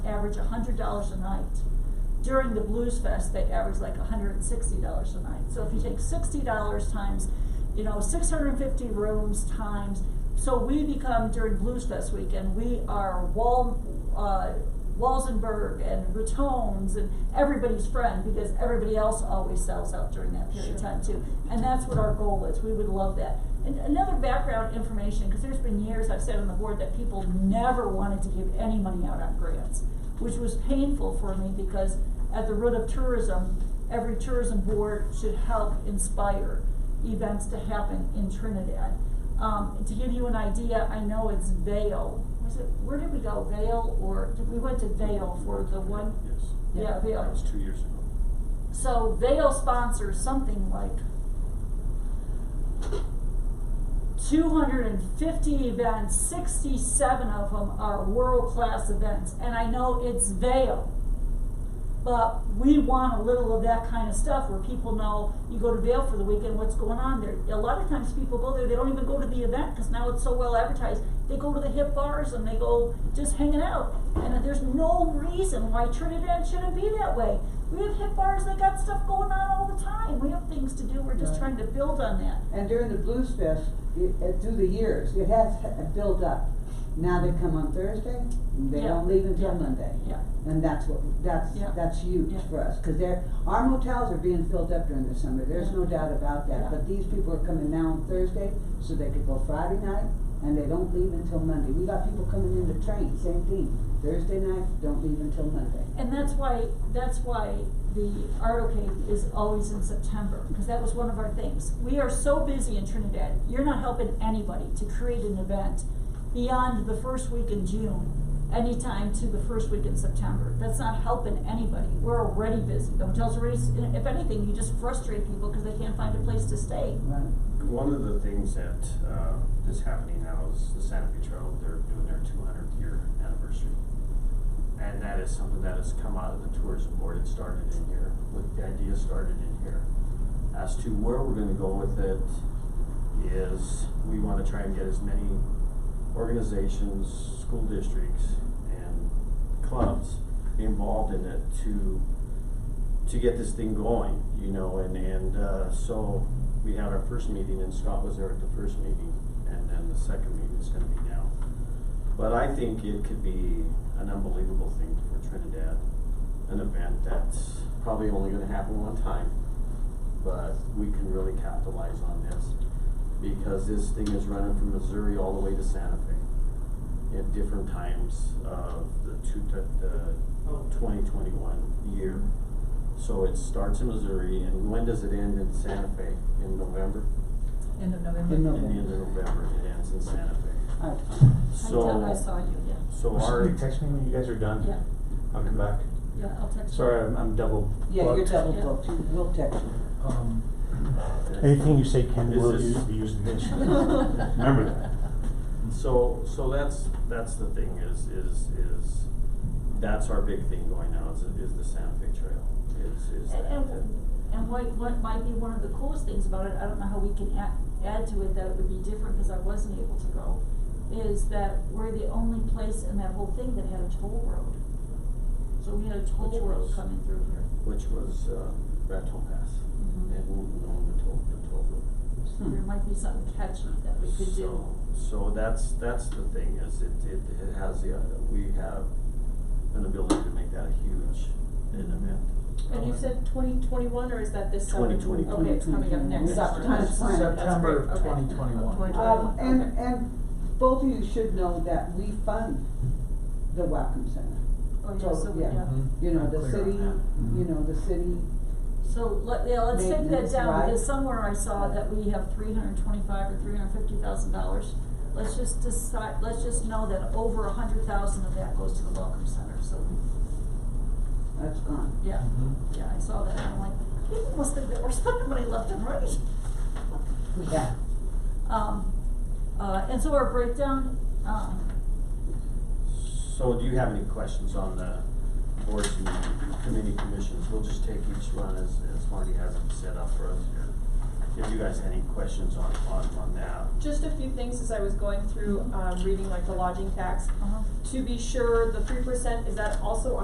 average hundred dollars a night. During the Blues Fest, they average like hundred and sixty dollars a night. So if you take sixty dollars times, you know, six hundred and fifty rooms times, so we become during Blues Fest weekend, we are Wal, uh, Walsenburg and Ratones and everybody's friend because everybody else always sells out during that period of Sure. time too. And that's what our goal is, we would love that. And another background information, cause there's been years I've said on the board that people never wanted to give any money out on grants, which was painful for me because at the root of tourism, every tourism board should help inspire events to happen in Trinidad. Um, to give you an idea, I know it's Vail, was it, where did we go, Vail or, we went to Vail for the one, Yes, yeah, Vail. that was two years ago. So Vail sponsors something like two hundred and fifty events, sixty-seven of them are world-class events, and I know it's Vail. But we want a little of that kind of stuff where people know, you go to Vail for the weekend, what's going on there? A lot of times people go there, they don't even go to the event, cause now it's so well advertised, they go to the hip bars and they go just hanging out. And there's no reason why Trinidad shouldn't be that way. We have hip bars, they got stuff going on all the time, we have things to do, we're just Right. trying to build on that. And during the Blues Fest, it, uh, through the years, it has h- built up. Now they come on Thursday, and they Yeah, don't leave yeah, until Monday. yeah. And that's what, that's, Yeah, that's huge yeah. for us, cause they're, our motels are being filled up during the summer, there's no Yeah. doubt about Yeah. that. But these people are coming now on Thursday, so they could go Friday night, and they don't leave until Monday. We got people coming in the train, same thing, Thursday night, don't leave until Monday. And that's why, that's why the Artocade is always in September, because that was one of our things. We are so busy in Trinidad, you're not helping anybody to create an event beyond the first week in June, anytime to the first week in September. That's not helping anybody, we're already busy, the hotels are already, s- if anything, you just frustrate people because they can't find a place to stay. Right. One of the things that, uh, is happening now is the Santa Fe Trail, they're doing their two hundredth year anniversary. And that is something that has come out of the tourism board, it started in here, with the idea started in here. As to where we're gonna go with it is, we wanna try and get as many organizations, school districts, and clubs involved in it to to get this thing going, you know, and, and, uh, so we had our first meeting and Scott was there at the first meeting and then the second meeting is gonna be now. But I think it could be an unbelievable thing for Trinidad, an event that's probably only gonna happen one time. But we can really capitalize on this because this thing is running from Missouri all the way to Santa Fe at different times of the two, the twenty twenty-one year. So it starts in Missouri, and when does it end in Santa Fe? In November? End of November. In In the end of November. November, it ends in Santa Fe. All right. I So, thought I saw you, yeah, so Or our, you text me when you guys are done. yeah, I'll come back. yeah, I'll text you. Sorry, I'm, I'm double booked. Yeah, you're double Yeah. booked, we'll text you. Um, anything you say can This will is- use be used against you. Remember that. so, so that's, that's the thing is, is, is, that's our big thing going now, is, is the Santa Fe Trail, is, is And, that. and, and what, what might be one of the coolest things about it, I don't know how we can add, add to it that it would be different, cause I wasn't able to go, is that we're the only place in that whole thing that had a toll road. So we had a toll Which road was- coming through here. Which was, uh, Raton Pass, Mhm. and Wooten on the toll, the toll road. So there might be something catchy that we could do. So, so that's, that's the thing, is it, it, it has the, uh, we have an ability to make that a huge, an event. And uh, you said twenty twenty-one, or is that this summer? 2021. Okay, it's coming up next It's summer. time to plan. That's great, September okay. 2021. Twenty Um, twenty-one, and, okay. and both of you should know that we fund the Welcome Center. Oh, yeah, So, so, yeah. yeah, Mm-hmm. You know, the Clear on city, that. you know, the city, so let, yeah, let's take that Maintenance, down, right. because somewhere I saw that we have three hundred and twenty-five or three hundred and fifty thousand dollars. Let's just decide, let's just know that over a hundred thousand of that goes to the Welcome Center, so that's gone. Yeah, Hmm? yeah, I saw that, and I'm like, people must think that we're spending money left and right. Yeah. Um, uh, and so our breakdown, um, So do you have any questions on the boards and committee commissions? We'll just take each one as, as Marty has it set up for us here. if you guys had any questions on, on, on that. Just a few things as I was going through, um, reading like the lodging tax. Uh-huh. To be sure, the three percent, is that also